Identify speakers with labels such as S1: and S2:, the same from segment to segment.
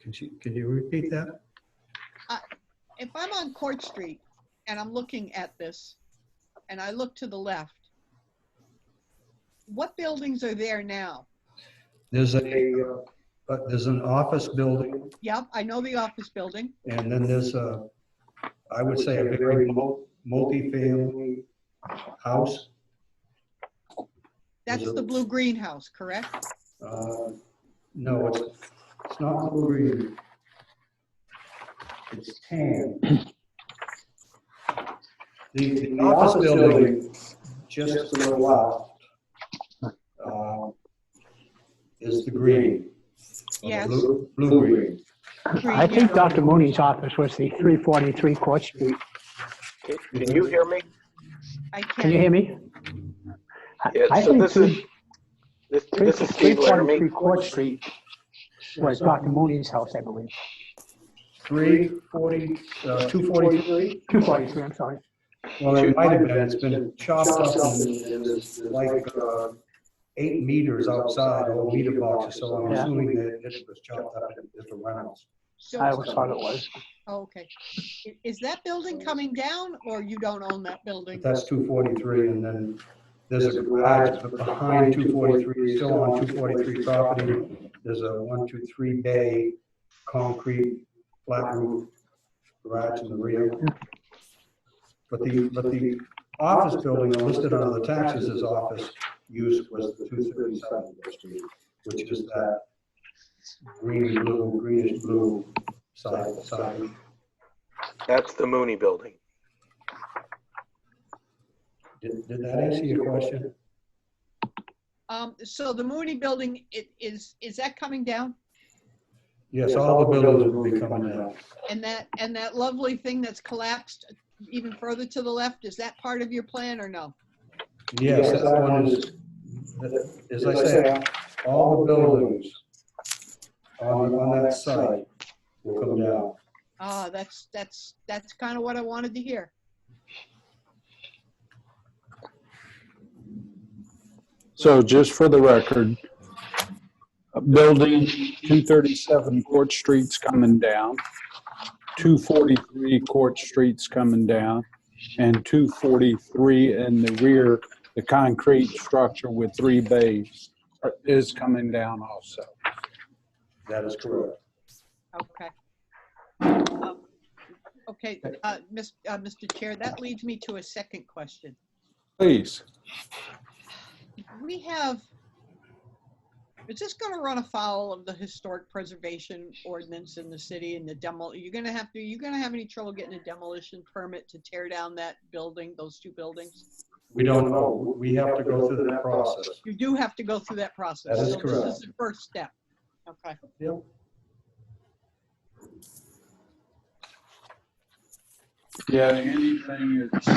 S1: Can she, can you repeat that?
S2: if I'm on Court Street and I'm looking at this, and I look to the left, what buildings are there now?
S1: There's a, uh, but there's an office building
S2: Yep, I know the office building.
S1: and then there's a, I would say a very mul- multifamily house.
S2: That's the blue greenhouse, correct?
S1: Uh, No, it's, it's not green. It's tan. The, the office building, just to the left, uh, is the green.
S2: Yes.
S1: Blue, blue green.
S2: Green,
S3: I think
S2: yeah.
S3: Dr. Mooney's office was the 343 Court Street.
S4: Can you hear me?
S2: I
S3: Can you
S2: can't,
S3: hear me? I-
S4: Yeah,
S3: I
S4: so
S3: think
S4: this is-
S3: three-
S4: This,
S3: three-
S4: this is Steve Laramie.
S3: 343 Court Street was Dr. Mooney's house, I believe.
S1: Three forty, uh, two forty-three?
S3: 243, I'm sorry.
S1: Well, it might have been, it's been chopped up and and there's like, uh, eight meters outside, or meter boxes, so I'm
S3: Yeah.
S1: assuming that it was chopped up into different rounds.
S3: I
S2: so,
S3: always thought it was.
S2: oh, okay. I- Is that building coming down or you don't own that building?
S1: But that's two forty-three, and then there's a garage behind two forty-three, still on two forty-three property. There's a one, two, three bay, concrete, flat roof garage in the rear. But the, but the office building listed under the taxes as office use was the two thirty-seven district, which is that green, blue, greenish blue side, side.
S4: That's the Mooney Building.
S1: Did, did that answer your question?
S2: Um, so the Mooney building, it is, is that coming down?
S1: Yes, all the buildings will be coming down.
S2: And that, and that lovely thing that's collapsed even further to the left, is that part of your plan or no?
S1: Yes, that one is, as I said, all the buildings on, on that site will come down.
S2: Ah, that's, that's, that's kind of what I wanted to hear.
S5: So just for the record, building 237 Court Street's coming down, 243 Court Street's coming down, and 243 in the rear, the concrete structure with three bays are- is coming down also.
S1: That is correct.
S2: Okay. Um, Okay, uh, Mis- uh, Mr. Chair, that leads me to a second question.
S5: Please,
S2: We have, is this going to run afoul of the historic preservation ordinance in the city and the demo? You're going to have to, you going to have any trouble getting a demolition permit to tear down that building, those two buildings?
S1: We don't know. We have to go through that process.
S2: You do have to go through that process.
S1: That is
S2: so This
S1: correct.
S2: is the first step. Okay.
S1: Yep.
S5: yeah, anything that's,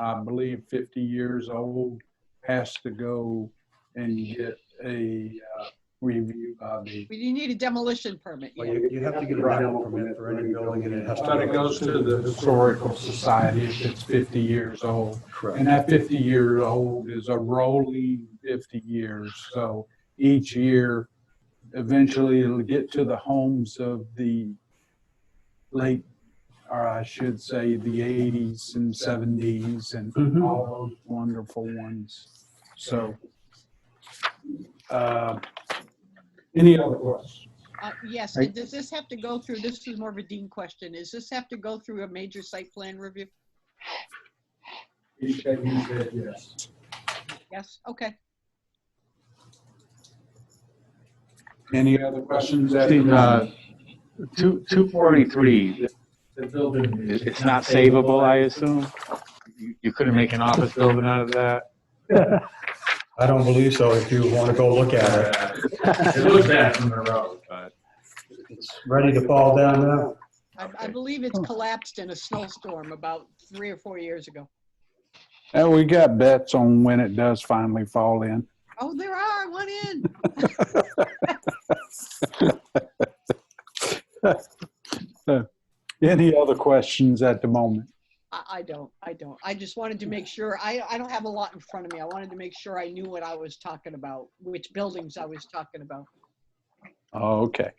S5: I believe, 50 years old has to go and get a uh, review by the
S2: But you need a demolition permit.
S1: Well,
S2: yeah.
S1: you, you have to get a rental permit for any building and it has to.
S5: But it goes to the Historical Society if it's 50 years old.
S1: Correct.
S5: And that 50 year old is a rolling 50 years. So each year, eventually it'll get to the homes of the late, or I should say, the 80s and 70s and
S1: Mhm.
S5: all those wonderful ones. So, uh, any other questions?
S2: Uh, Yes,
S3: I-
S2: and does this have to go through, this is more of a Dean question, does this have to go through a major site plan review?
S5: He said- he said yes.
S2: Yes, okay.
S5: Any other questions? at the
S6: Uh, Two, 243,
S5: the building?
S6: it- it's not savable, I assume? You- You couldn't make an office building out of that?
S1: I don't believe so if you want to go look at it.
S6: It looks bad from the road, but.
S1: It's ready to fall down now.
S2: I, I
S6: Okay.
S2: believe it's collapsed in a snowstorm about three or four years ago.
S5: Uh, we got bets on when it does finally fall in.
S2: Oh, there are, one in.
S5: Any other questions at the moment?
S2: I, I don't, I don't. I just wanted to make sure, I, I don't have a lot in front of me. I wanted to make sure I knew what I was talking about, which buildings I was talking about.
S5: Oh, okay.